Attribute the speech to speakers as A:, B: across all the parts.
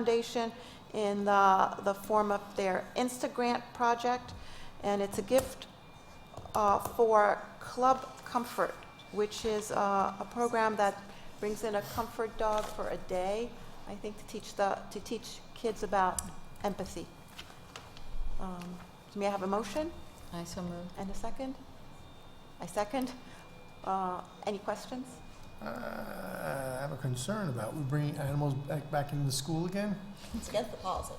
A: Foundation in the, the form of their Instagrant project, and it's a gift uh, for Club Comfort, which is uh, a program that brings in a comfort dog for a day, I think to teach the, to teach kids about empathy. Um, May I have a motion
B: I so move.
A: and a second? I second. Uh, Any questions?
C: Uh, I have a concern about, we bringing animals back, back into the school again?
B: It's against the policy.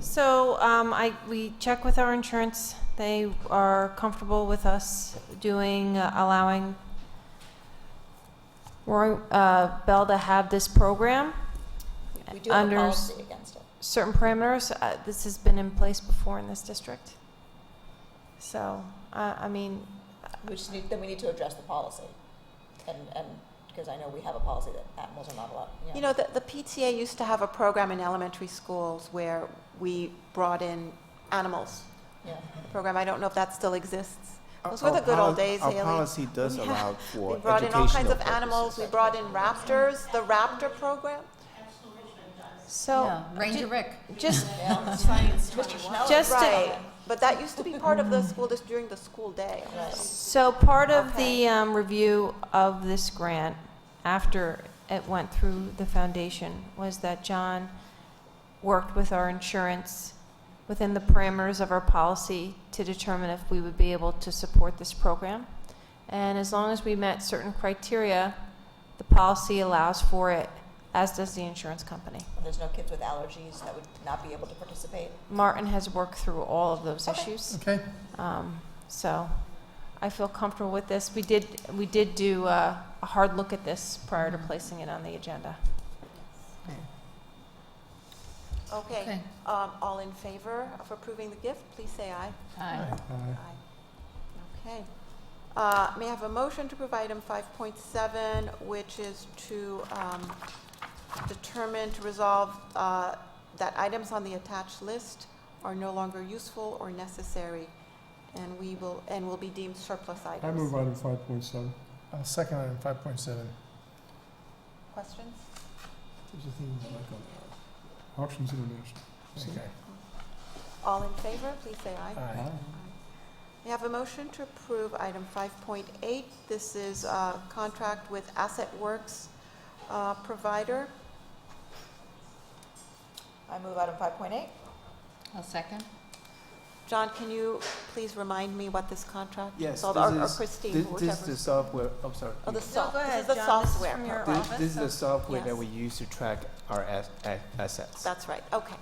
D: So um, I, we check with our insurance. They are comfortable with us doing, uh, allowing Roy uh, Bell to have this program,
B: We do have a
D: Under-
B: policy against it.
D: certain parameters. Uh, This has been in place before in this district. So, I, I mean,
B: We just need, then we need to address the policy. And, and, because I know we have a policy that animals are not allowed,
A: You
B: you know.
A: know, the, the PTA used to have a program in elementary schools where we brought in animals.
B: Yeah.
A: Program, I don't know if that still exists.
E: Mm-hmm. Our-
A: Those were the
E: our
A: good old
E: poli-
A: days, Haley.
E: Our policy does
A: Yeah.
E: allow for educational
A: We brought in all kinds of
E: purposes.
A: animals, we brought in raptors, the raptor program.
D: so,
F: Ranger Rick.
D: just,
B: Mr. Schnell.
D: Just to-
A: Right, but that used to be part of the school, just during the school day.
D: So part of the um, review of this grant, after it went through the foundation, was that John worked with our insurance within the parameters of our policy to determine if we would be able to support this program. And as long as we met certain criteria, the policy allows for it, as does the insurance company.
B: And There's no kids with allergies that would not be able to participate.
D: Martin has worked through all of those
B: Okay.
D: issues.
C: Okay,
D: Um, So I feel comfortable with this. We did, we did do uh, a hard look at this prior to placing it on the agenda.
A: Okay,
F: Okay.
A: um, all in favor of approving the gift, please say aye.
F: Aye.
A: Okay. Uh, May I have a motion to approve item 5.7, which is to um, determine, to resolve uh, that items on the attached list are no longer useful or necessary, and we will, and will be deemed surplus items.
G: I move item five point seven.
C: I'll second item five point seven.
A: Questions?
G: Options International.
C: Okay.
A: All in favor, please say aye.
C: Aye.
A: May I have a motion to approve item 5.8? This is a contract with Asset Works uh, provider.
B: I move item five point eight.
F: I'll second.
A: John, can you please remind me what this contract is
E: Yes,
A: called? Or-
E: this
A: Or
E: is-
A: Christine,
E: This, this is
A: whichever.
E: the software, I'm sorry.
A: Oh, the
E: Thi-
A: soft,
D: go
A: this is
D: ahead,
A: the
D: John, this is
A: software.
D: from your
A: part.
D: office?
E: This, is the software that
A: Yes.
E: we use to track our as- a- assets.
A: That's right, okay.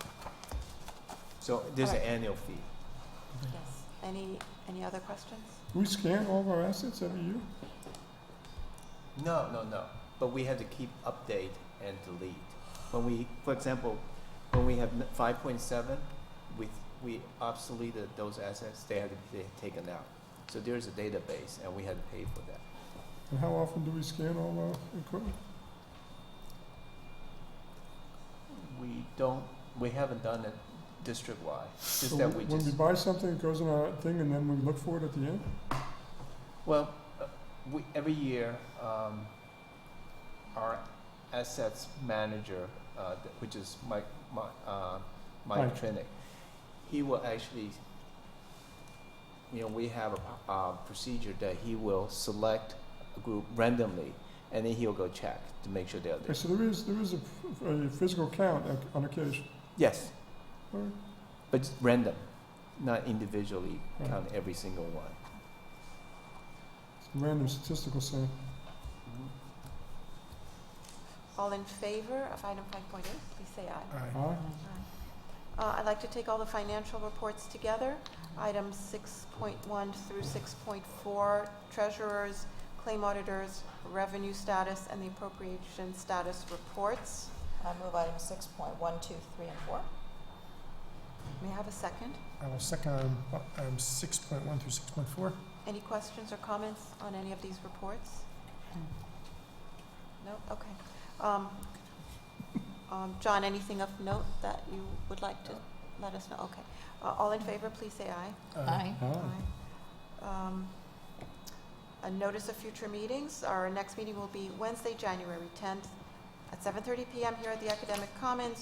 E: So there's an
A: Alright.
E: annual fee.
A: Yes. Any, any other questions?
G: We scan all of our assets every year?
E: No, no, no. But we have to keep update and delete. When we, for example, when we have five point seven, we, we obsoleted those assets, they had to be ta- taken out. So there's a database and we had to pay for that.
G: And how often do we scan all our equipment?
E: We don't, we haven't done it district-wide,
G: So
E: just that we
G: When we
E: just,
G: buy something, it goes in our thing and then we look for it at the end?
E: well, uh, we, every year, um, our assets manager, uh, th- which is Mike, Mike, uh, Mike
G: Mike.
E: Trinick, he will actually, you know, we have a, uh procedure that he will select a group randomly, and then he'll go check to make sure they're
G: Okay,
E: there.
G: so there is, there is a, f- a physical count ac- on occasion.
E: Yes,
G: All right.
E: but it's random, not individually
G: Right.
E: count every single one.
G: It's a Random statistical sample.
A: All in favor of item 5.8, please say aye.
C: Aye.
G: Aye.
A: Uh, I'd like to take all the financial reports together. Items 6.1 through 6.4, treasurers, claim auditors, revenue status, and the appropriation status reports.
B: I move item six point one, two, three, and four.
A: May I have a second?
C: I will second item,
G: um,
C: item six point one through six point four.
A: Any questions or comments on any of these reports? No, okay. Um, um, John, anything of note that you would like to let us know? Okay. Uh, All in favor, please say aye.
F: Aye.
G: Uh, Aye.
A: Um, A notice of future meetings. Our next meeting will be Wednesday, January 10th at 7:30 PM here at the Academic Commons,